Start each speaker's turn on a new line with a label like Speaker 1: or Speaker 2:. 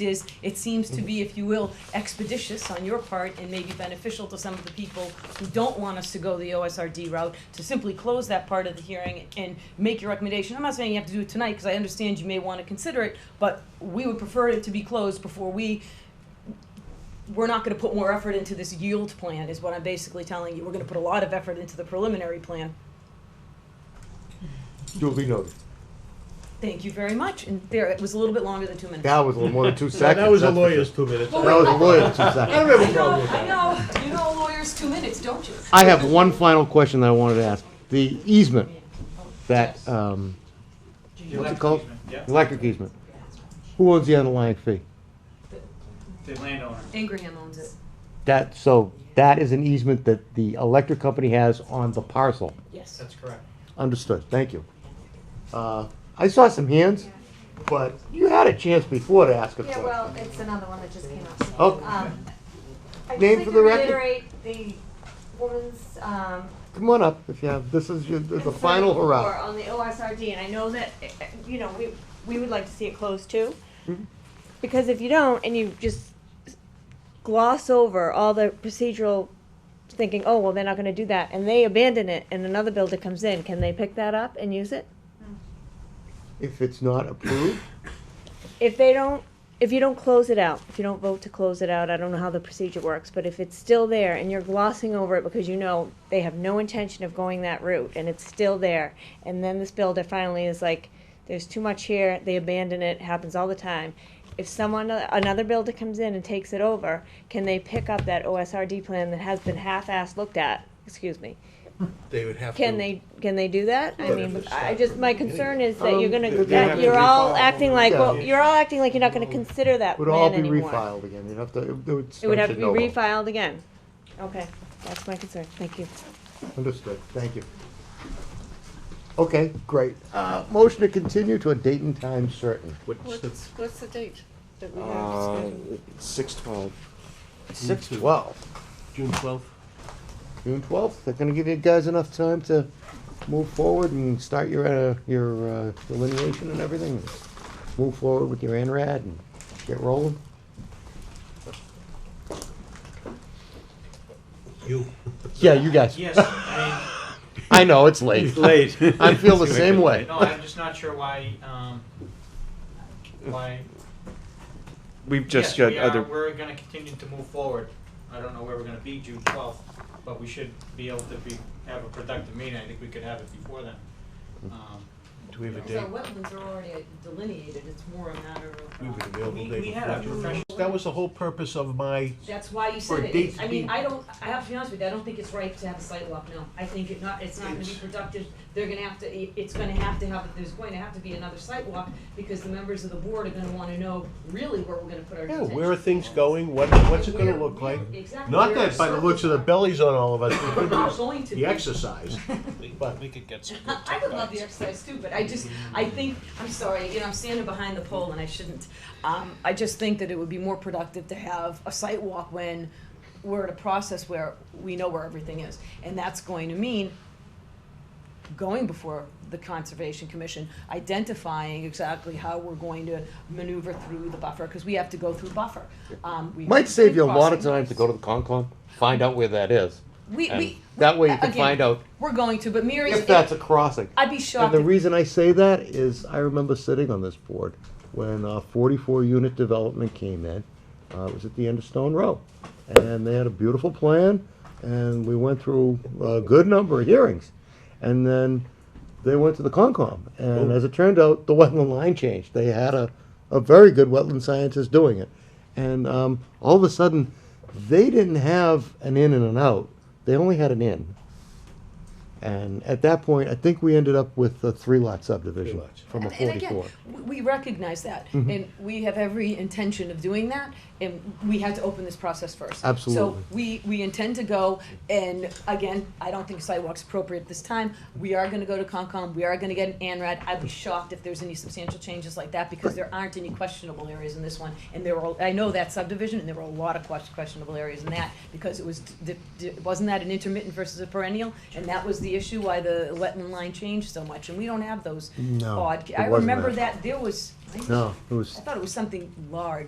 Speaker 1: is, it seems to be, if you will, expeditious on your part and maybe beneficial to some of the people who don't want us to go the OSRD route, to simply close that part of the hearing and make your recommendation. I'm not saying you have to do it tonight, because I understand you may want to consider it, but we would prefer it to be closed before we, we're not gonna put more effort into this yield plan, is what I'm basically telling you. We're gonna put a lot of effort into the preliminary plan.
Speaker 2: duly noted.
Speaker 1: Thank you very much, and there, it was a little bit longer than two minutes.
Speaker 2: That was a little more than two seconds.
Speaker 3: That was a
Speaker 2: that's for sure.
Speaker 3: lawyer's two minutes.
Speaker 1: Well,
Speaker 2: That was a lawyer's two
Speaker 3: I don't
Speaker 2: seconds.
Speaker 3: have a
Speaker 1: I know,
Speaker 3: problem with
Speaker 1: I
Speaker 3: that.
Speaker 1: know, you know lawyers two minutes, don't you?
Speaker 2: I have one final question that I wanted to ask. The easement that, um, what's it called?
Speaker 4: Yeah,
Speaker 2: Electric easement. Who owns the underlying fee?
Speaker 4: the landowner.
Speaker 1: Ingraham owns it.
Speaker 2: That, so that is an easement that the electric company has on the parcel.
Speaker 1: Yes.
Speaker 4: That's correct.
Speaker 2: Understood, thank you. Uh, I saw some hands, but you had a chance before to ask a
Speaker 5: Yeah,
Speaker 2: question.
Speaker 5: well, it's another one that just came up.
Speaker 2: Oh,
Speaker 5: Um,
Speaker 2: Name
Speaker 5: I'd just like
Speaker 2: for
Speaker 5: to
Speaker 2: the record.
Speaker 5: reiterate the woman's, um,
Speaker 2: come on up if you have, this is your, the
Speaker 5: concern
Speaker 2: final
Speaker 5: before
Speaker 2: hurrah.
Speaker 5: On the OSRD, and I know that, eh, eh, you know, we, we would like to see it closed too.
Speaker 2: Mm-hmm.
Speaker 5: Because if you don't, and you just gloss over all the procedural, thinking, oh, well, they're not gonna do that, and they abandon it, and another builder comes in, can they pick that up and use it?
Speaker 2: If it's not approved,
Speaker 5: if they don't, if you don't close it out, if you don't vote to close it out, I don't know how the procedure works, but if it's still there and you're glossing over it because you know they have no intention of going that route and it's still there, and then this builder finally is like, there's too much here, they abandon it, happens all the time. If someone, another builder comes in and takes it over, can they pick up that OSRD plan that has been half-assed looked at, excuse me?
Speaker 3: They would have to.
Speaker 5: Can they, can they do that? I
Speaker 3: But
Speaker 5: mean,
Speaker 3: if it's
Speaker 5: I
Speaker 3: not
Speaker 5: just, my
Speaker 3: from the
Speaker 5: concern
Speaker 3: beginning.
Speaker 5: is that you're
Speaker 2: Um,
Speaker 5: gonna,
Speaker 2: they- they have
Speaker 5: that
Speaker 2: to
Speaker 5: you're all
Speaker 3: refile.
Speaker 5: acting like, well,
Speaker 2: Yeah.
Speaker 5: you're all acting like you're not gonna consider that
Speaker 2: it would all
Speaker 5: plan
Speaker 2: be
Speaker 5: anymore.
Speaker 2: refiled again, you'd have to, it would
Speaker 5: It would
Speaker 2: start
Speaker 5: have
Speaker 2: de
Speaker 5: to be
Speaker 2: novo.
Speaker 5: refiled again. Okay, that's my concern, thank you.
Speaker 2: Understood, thank you. Okay, great. Uh, motion to continue to a date and time certain.
Speaker 3: What's the-
Speaker 6: What's the date that we have
Speaker 2: Uh,
Speaker 6: scheduled?
Speaker 2: six twelve.
Speaker 3: June
Speaker 2: Six
Speaker 3: two-
Speaker 2: twelve.
Speaker 3: June twelfth?
Speaker 2: June twelfth. They're gonna give you guys enough time to move forward and start your, uh, your, uh, delineation and everything. and Move forward with your NRAD and get rolling.
Speaker 3: You.
Speaker 2: Yeah, you guys.
Speaker 4: Yes, I
Speaker 2: I know, it's late.
Speaker 3: Late.
Speaker 2: I feel the same way.
Speaker 4: mean, no, I'm just not sure why, um, why.
Speaker 7: We've just got
Speaker 4: Yes, we
Speaker 7: other.
Speaker 4: are, we're gonna continue to move forward. I don't know where we're gonna be June twelfth, but we should be able to be, have a productive meeting. I think we could have it before then. Um,
Speaker 3: Do we have a
Speaker 1: So
Speaker 3: date?
Speaker 1: wetlands are already delineated, it's more a matter of.
Speaker 3: We
Speaker 1: uh,
Speaker 3: have an available
Speaker 4: We-
Speaker 3: date
Speaker 4: we
Speaker 3: for
Speaker 4: had a
Speaker 3: June.
Speaker 4: professional-
Speaker 3: That was the whole purpose of my,
Speaker 1: That's why you
Speaker 3: For
Speaker 1: said
Speaker 3: a
Speaker 1: it,
Speaker 3: date to
Speaker 1: I mean,
Speaker 3: be-
Speaker 1: I don't, I have to be honest with you, I don't think it's right to have a site walk now. I think it not, it's not gonna be
Speaker 3: It's-
Speaker 1: productive, they're gonna have to, it- it's gonna have to have, there's going to have to be another site walk, because the members of the board are gonna wanna know really where we're gonna put our
Speaker 3: yeah,
Speaker 1: attention.
Speaker 3: where are things going, what, what's it gonna
Speaker 1: Where-
Speaker 3: look like?
Speaker 1: Exactly.
Speaker 3: Not
Speaker 1: where our
Speaker 3: that by the looks of the
Speaker 1: circles
Speaker 3: bellies on all of us,
Speaker 1: are.
Speaker 3: we
Speaker 1: We're
Speaker 3: could
Speaker 1: not
Speaker 3: do
Speaker 1: going to.
Speaker 3: the exercise, but
Speaker 8: We could get some good
Speaker 1: I would love the exercise too, but I just, I think, I'm sorry, you know, I'm standing behind the pole and I shouldn't. Um, I just think that it would be more productive to have a site walk when we're at a process where we know where everything is. And that's going to mean going before the Conservation Commission, identifying exactly how we're going to maneuver through the buffer, because we have to go through buffer. Um, we-
Speaker 2: Might save you a lot of
Speaker 1: crossing.
Speaker 2: time to go to the Concom, find out where that is.
Speaker 1: We,
Speaker 2: and
Speaker 1: we.
Speaker 2: That way you can
Speaker 1: again,
Speaker 2: find out
Speaker 1: We're going to, but Mary,
Speaker 2: if that's a crossing.
Speaker 1: I'd be
Speaker 2: And
Speaker 1: shocked
Speaker 2: the
Speaker 1: if
Speaker 2: reason I say that is I remember sitting on this board when uh, 44 unit development came in. Uh, it was at the end of Stone Row. And they had a beautiful plan, and we went through a good number of hearings. And then they went to the Concom. And as it turned out, the wetland line changed. They had a, a very good wetland scientist doing it. And um, all of a sudden, they didn't have an in and an out, they only had an in. And at that point, I think we ended up with a three lot subdivision
Speaker 3: Three lots.
Speaker 2: from a
Speaker 1: And- and again,
Speaker 2: forty-four. Mm-hmm.
Speaker 1: w- We recognize that, and we have every intention of doing that, and we had to open this process first.
Speaker 2: Absolutely.
Speaker 1: So we, we intend to go, and again, I don't think sidewalk's appropriate this time. We are gonna go to Concom, we are gonna get an Anrad. I'd be shocked if there's any substantial changes like that, because there aren't any questionable areas in this one. And there were, I know that subdivision, and there were a lot of ques- questionable areas in that, because it was, d- d- wasn't that an intermittent versus a perennial? And that was the issue why the wetland line changed so much, and we don't have those
Speaker 2: No,
Speaker 1: odd.
Speaker 2: it
Speaker 1: I
Speaker 2: wasn't
Speaker 1: remember
Speaker 2: that.
Speaker 1: that there was, I
Speaker 2: No, it was
Speaker 1: thought it was something large.